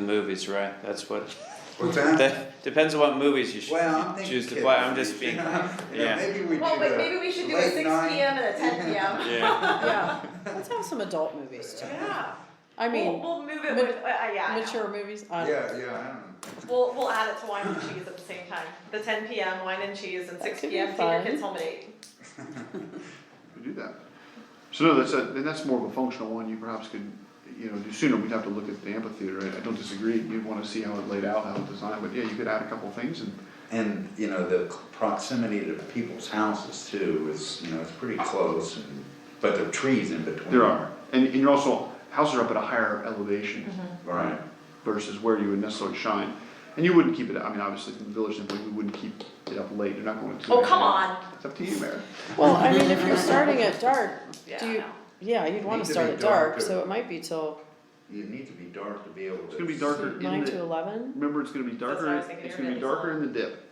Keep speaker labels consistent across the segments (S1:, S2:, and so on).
S1: movies, right? That's what.
S2: What's that?
S1: That depends on what movies you should
S2: Well, I'm thinking.
S1: choose to play. I'm
S2: kids,
S1: just
S2: you
S1: being.
S2: know? You know,
S1: yeah.
S2: Maybe we do
S3: Well, wait, maybe
S2: a
S3: we should do a
S2: late
S3: six
S2: night.
S3: PM and a ten PM.
S1: Yeah.
S4: Yeah, let's have some adult movies too.
S3: Yeah.
S4: I
S3: We'll,
S4: mean,
S3: we'll move it
S4: mat-
S3: with, uh, uh, yeah. I know.
S4: mature movies. I
S2: Yeah,
S4: don't-
S2: yeah,
S3: We'll, we'll add it to wine and cheese at the same time. The ten PM wine and cheese and
S4: That
S3: six
S4: could be
S3: PM senior
S4: fun.
S3: kids home at eight.
S5: to do that. So no, that's a, then that's more of a functional one, you perhaps could, you know, do sooner, we'd have to look at the amphitheater, I, I don't disagree, you'd wanna see how it laid out, how it designed, but yeah, you could add a couple things and,
S6: And, you know, the proximity to people's houses too is, you know, it's pretty close and, but there are trees in between.
S5: there are. And, and you're also, houses are up at a higher elevation
S3: Mm-hmm.
S6: Right,
S5: versus where you would necessarily shine. And you wouldn't keep it, I mean, obviously, from the village simply, we wouldn't keep it up late, you're not going to.
S3: Oh, come on.
S5: It's up to you, Mayor.
S4: Well, I mean, if you're starting at dark,
S3: Yeah,
S4: do
S3: I
S4: you,
S3: know.
S4: yeah, you'd wanna
S6: Need to be
S4: start at
S6: dark
S4: dark,
S6: or-
S4: so it might be till
S6: you need to be dark to be able to.
S5: It's gonna be darker in
S4: nine to
S5: the,
S4: eleven.
S5: remember, it's gonna be
S3: what I
S5: darker,
S3: was thinking,
S5: it's
S3: you're
S5: gonna be
S3: gonna be
S5: darker in the dip.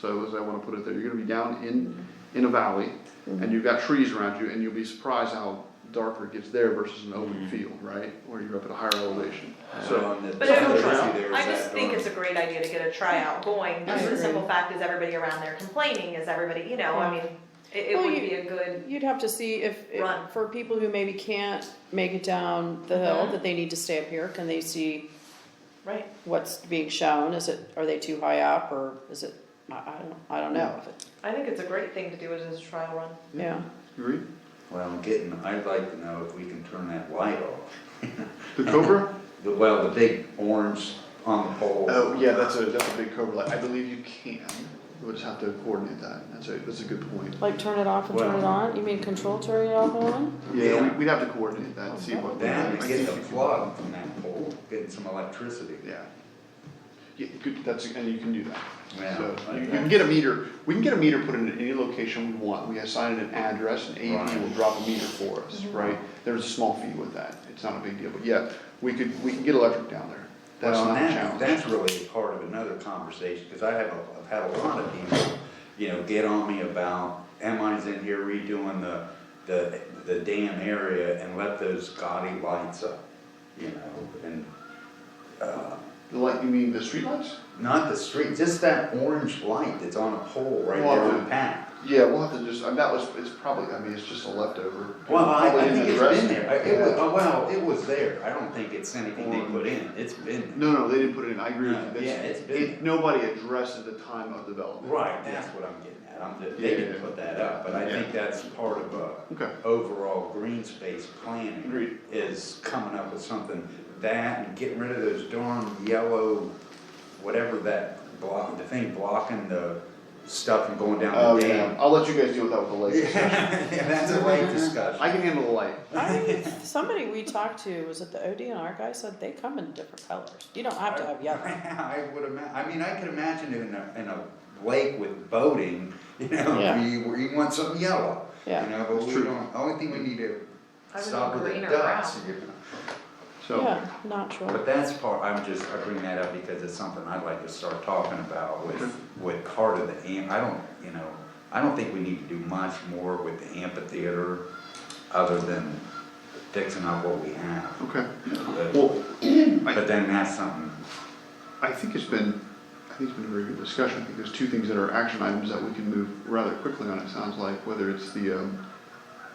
S5: So as I wanna put it there, you're gonna be down in, in a valley, and you've got trees around you, and you'll be surprised how darker it gets there versus an open field, right? Where you're up at a higher elevation,
S6: So
S5: so.
S6: on the.
S3: But
S6: so
S3: I don't
S6: there's
S3: know.
S6: there's
S3: I just
S6: that
S3: think
S6: dark.
S3: it's a great idea to get a tryout going,
S4: I
S3: just the
S4: agree.
S3: simple fact is everybody around there complaining, is everybody, you know, I
S4: Yeah.
S3: mean, it, it
S4: Well,
S3: would
S4: you-
S3: be a good,
S4: You'd have to see if, if-
S3: Run.
S4: for people who maybe can't make it down the hill,
S3: Mhm.
S4: that they need to stay up here, can they see
S3: right?
S4: what's being shown? Is it, are they too high up, or is it, I, I don't, I don't know. if
S6: Mm-hmm.
S4: it-
S3: I think it's a great thing to do it as a trial run.
S4: Yeah,
S5: You Agree?
S6: Well, I'm getting, I'd like to know if we can turn that light off.
S5: The Cobra?
S6: The, well, the big orange on the pole.
S5: Oh, yeah, that's a, that's a big Cobra, light. I believe you can, we'll just have to coordinate that, that's a, that's a good point.
S4: like turn it off and turn it
S6: Well-
S4: on? You mean control turning it off and on?
S5: Yeah, we,
S6: Yeah.
S5: we'd have to coordinate that, and see what.
S6: Then
S5: I
S6: we get
S5: think
S6: the
S5: we can-
S6: plug from that pole, getting some electricity.
S5: Yeah. Yeah, good, that's, and you can do that.
S6: Yeah,
S5: So,
S6: like
S5: you you
S6: that.
S5: can get a meter, we can get a meter put in at any location we want, we assign it an address, and AEP
S6: Right.
S5: will drop a meter for us, right? There's a small fee with that, it's not a big deal, but yeah, we could, we can get electric down there, that's
S6: Well,
S5: not a
S6: that-
S5: challenge.
S6: That's really a part of another conversation, because I have, a- I've had a lot of people, you know, get on me about, Emmeline's in here redoing the, the, the damn area and let those gaudy lights up, you know, and, uh,
S5: The light, you mean the streetlights?
S6: not the street, just that orange light that's on a pole right
S5: Well,
S6: there on
S5: the-
S6: Pat.
S5: Yeah, we'll have to just, I mean, that was, it's probably, I mean, it's just a leftover.
S6: Well, I,
S5: Probably
S6: I
S5: didn't
S6: think it's
S5: address
S6: been there, I- it was,
S5: Yeah.
S6: oh, well, it was there, I don't think it's anything they
S5: Orange.
S6: put in, it's been there.
S5: No, no, they didn't put it in, I agree with you,
S6: No,
S5: that's.
S6: yeah, it's been there.
S5: It, nobody addressed at the time of development.
S6: Right, that's what I'm getting at, I'm, just- they
S5: Yeah.
S6: didn't put that up, but I
S5: Yeah.
S6: think that's part of a
S5: Okay.
S6: overall green space planning.
S5: Agreed.
S6: Is coming up with something, that and getting rid of those darn yellow, whatever that block, the thing blocking the stuff and going down
S5: Oh,
S6: the
S5: yeah,
S6: dam.
S5: I'll let you guys deal with that with the lake.
S6: Yeah, that's a late discussion.
S5: I can handle the light.
S4: I, somebody we talked to, was it the ODNR guy, said they come in different colors. You don't have to have yellow.
S6: I would ima- I mean, I could imagine in a, in a lake with boating, you know,
S4: Yeah.
S6: you, you want something yellow.
S4: Yeah.
S6: You know, but we
S5: true.
S6: don't, only thing we need to
S3: I would
S6: stop
S3: want
S6: with the
S3: green or
S6: ducks, you know.
S5: So.
S4: Yeah, natural.
S6: But that's part, I'm just, I bring that up because it's something I'd like to start talking about with, with part of the amp, I don't, you know, I don't think we need to do much more with the amphitheater other than fixing up what we have.
S5: Okay.
S6: But
S5: Well,
S6: but then that's something,
S5: I think it's been, I think it's been a very good discussion. I think there's two things that are action items that we can move rather quickly on, it sounds like, whether it's the, um,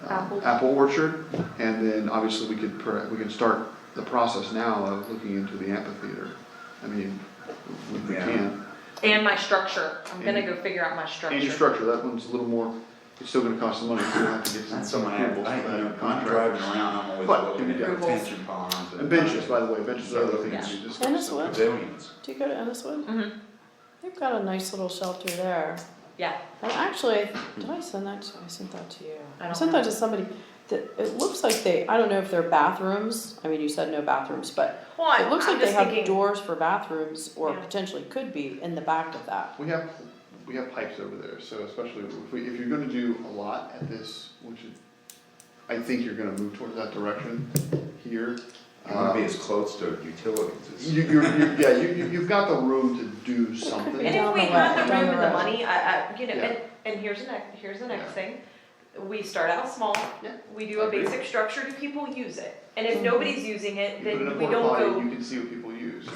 S5: um,
S3: Apple.
S5: Apple orchard, and then obviously we could, per- we can start the process now of looking into the amphitheater. I mean, we we
S6: Yeah.
S5: can.
S3: And my structure, I'm gonna
S5: And-
S3: go figure out my structure.
S5: And your structure, that one's a little more, it's still gonna cost some money, so we'll have to get some.
S6: that's something I,
S5: approvals
S6: I,
S5: for
S6: you
S5: that
S6: know, when I'm
S5: contract.
S6: driving around, I'm always
S5: But-
S6: looking at
S5: Yeah.
S6: detention ponds and.
S5: And benches, by the way, benches are the other things you just.
S4: And it's what?
S6: Pavilions.
S4: Do you go to Enniswood?
S3: Mhm.
S4: They've got a nice little shelter there.
S3: Yeah,
S4: And actually, did I send that to, I sent that to you.
S3: I don't
S4: sent that to somebody. That, it looks like they, I don't know if they're bathrooms, I mean, you said no bathrooms, but
S3: well, I'm,
S4: it looks
S3: I'm
S4: like they
S3: just
S4: have
S3: thinking,
S4: doors for bathrooms or
S3: Yeah.
S4: potentially could be in the back of that.
S5: We have, we have pipes over there, so especially if we, if you're gonna do a lot at this, which is, I think you're gonna move towards that direction here.
S6: You wanna be
S5: Uh,
S6: as close to utilities as.
S5: You, you're, you yeah, you, you- you've got the room to do something.
S3: and
S4: down
S3: if we
S4: the
S3: had
S4: left,
S3: the
S4: down
S3: room
S4: the
S3: and the
S4: right.
S3: money, I, I, you know,
S5: Yeah.
S3: and, and here's the next, here's the next
S5: Yeah.
S3: thing. We start out small,
S5: Yeah.
S3: we do a
S5: Agreed.
S3: basic structure, do people use it? And if
S4: Mhm.
S3: nobody's using it,
S5: You put it in a
S3: then we
S5: porta
S3: don't
S5: potty,
S3: go
S5: You can see what people use.